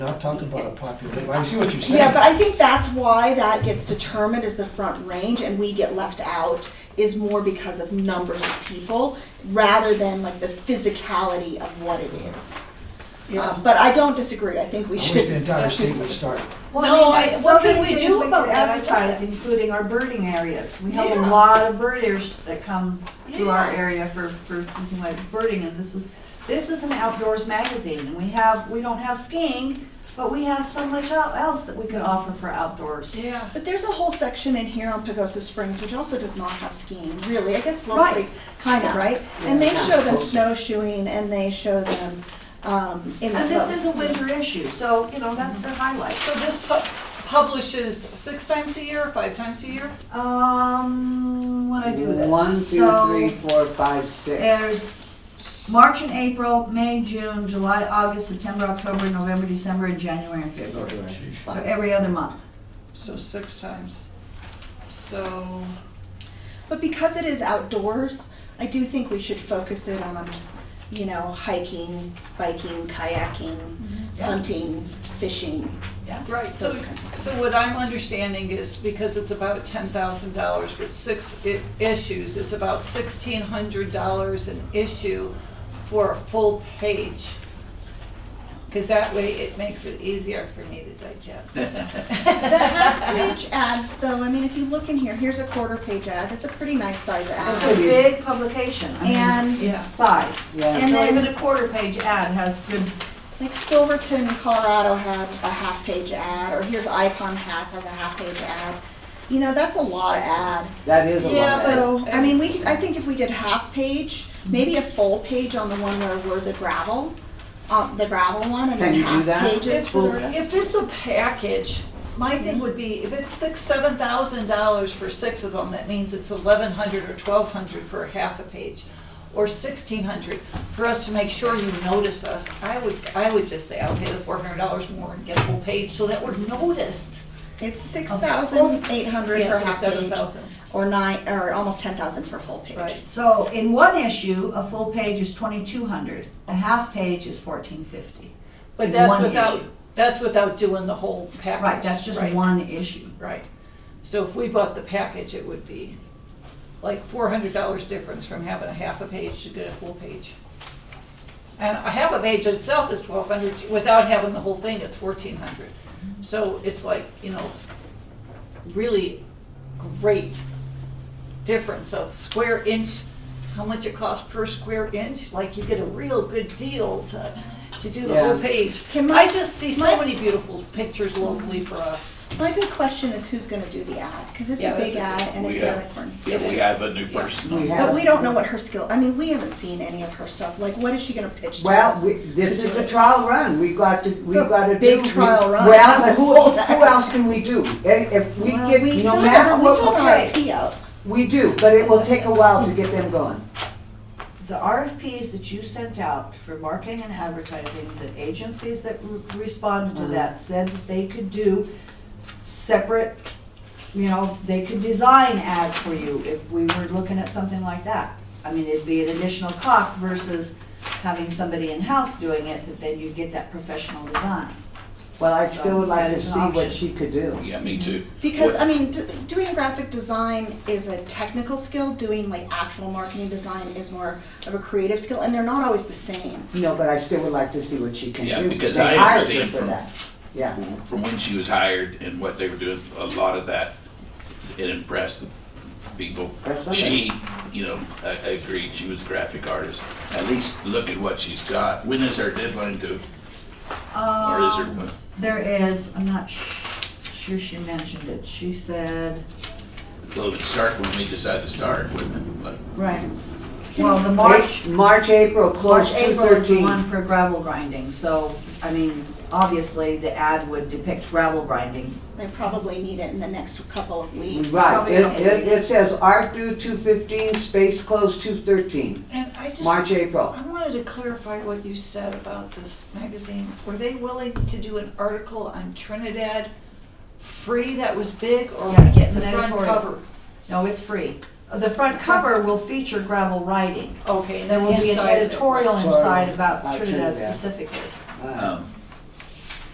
Not talk about a population, I see what you're saying. Yeah, but I think that's why that gets determined as the front range and we get left out is more because of numbers of people rather than like the physicality of what it is. Yeah. Um, but I don't disagree. I think we I wish should. the entire state would start. Well, No, I mean, I- there's what so can many we things do about could that? Advertise, including our birding areas. We have a Yeah. lot of birders that come to our Yeah. area for, for something like birding, and this is, this is an outdoors magazine, and we have, we don't have skiing, but we have so much el- else that we could offer for outdoors. Yeah. But there's a whole section in here on Pagosa Springs which also does not have skiing, really. I guess Wolf Right. Creek, kind of, Yeah. right? And they Yeah. show them snowshoeing and they show them um, in the. And this book. is a winter issue, so, you know, that's the highlight. So this pu- publishes six times a year, five times a year? Um, what I do with it? One, two, So- three, four, five, six. There's March and April, May, June, July, August, September, October, November, December, and January and February. So every other month. So six times. So, But because it is outdoors, I do think we should focus it on, you know, hiking, biking, kayaking, hunting, fishing. right, Mm-hmm. so, Those kinds of so things. what I'm understanding is because it's about ten thousand dollars with six i- issues, it's about sixteen hundred dollars an issue for a full page. Cause that way it makes it easier for me to digest. The half-page ads, though, I mean, if you look in here, here's a quarter-page ad. That's a pretty nice size It's ad. a big publication. I And- mean, it's size. Yeah. And So then- even a quarter page ad has good, Like Silverton, Colorado had a half-page ad, or here's Icon Pass has a half-page ad. You know, that's a lot of ad. That is a Yeah, lot. So, I mean, we, could- I think if we did half page, maybe a full page on the one where we're the gravel, uh, the gravel one, and then Can you do half that? pages If- for the If rest. it's a package, my Mm-hmm. thing would be, if it's six, seven thousand dollars for six of them, that means it's eleven hundred or twelve hundred for half a page, or sixteen hundred, for us to make sure you notice us, I would, I would just say, I'll pay the four hundred dollars more and get a full page, so that we're noticed. It's six thousand eight hundred for Yes, half Oh. seven page, thousand, or nine, or almost ten thousand for full page. Right. so in one issue, a full page is twenty-two hundred, a half page is fourteen fifty. but that's One without, issue. that's without doing the whole package. Right, that's just Right. one issue. Right. So if we bought the package, it would be like four hundred dollars difference from having a half a page to get a full page. And a half a page itself is twelve hundred, without having the whole thing, it's fourteen hundred. So it's like, you know, really great difference of square inch, how much it costs per square inch, like you get a real good deal to, to do the whole Yeah. page. Can my- I just see so my- many beautiful pictures locally for us. My big question is who's gonna do the ad, cause it's Yeah, a big that's a ad good- and We it's have- Eric Horn. Yeah, It we is. have a new Yeah. person We on. have- But we don't know what her skill, I mean, we haven't seen any of her stuff, like what is she gonna pitch to us? Well, we- this is the trial run, we got to, we a got to do. big we- trial run. Well, but who, Full who else can we do? If if we Well, get, we still no have matter our- what, We still have our RFP out. we do, but it will take a while to get them going. The RFPs that you sent out for marketing and advertising, the agencies that re- responded to that said that they could do separate, you know, they could design ads for you if we were looking at something like that. I mean, it'd be an additional cost versus having somebody in-house doing it, but then you get that professional design. Well, I still would like That to is see an what option. she could do. Yeah, me too. Because, What- I mean, d- doing graphic design is a technical skill, doing like actual marketing design is more of a creative skill, and they're not always the same. No, but I still would like to see what she can do. Yeah, because They I hired her understand for from- that. Yeah. From when she was hired and what they were doing, a lot of that, it impressed the people. That's okay. She, you know, a- agreed, she was a graphic artist. At least look at what she's got. When is her deadline due? Or is her, Um, There is, I'm not sh- sure she mentioned it, she said, well, it start when we decide to start, wouldn't it? Like, right, well, the March. March, March, April, close March, two April is the one thirteen. for gravel grinding, so, I mean, obviously, the ad would depict gravel grinding. They probably need it in the next couple of weeks. Right, probably it, okay. it, it says art due two fifteen, space close two thirteen, And I just, March, I April. wanted to clarify what you said about this magazine. Were they willing to do an article on Trinidad free that was big, or we Yes, get it's the an front editorial. cover? No, it's free. The front cover will feature gravel riding. Okay, and There then will be an inside it. editorial Sorry, inside about about Trinidad Trinidad. specifically. Uh, um,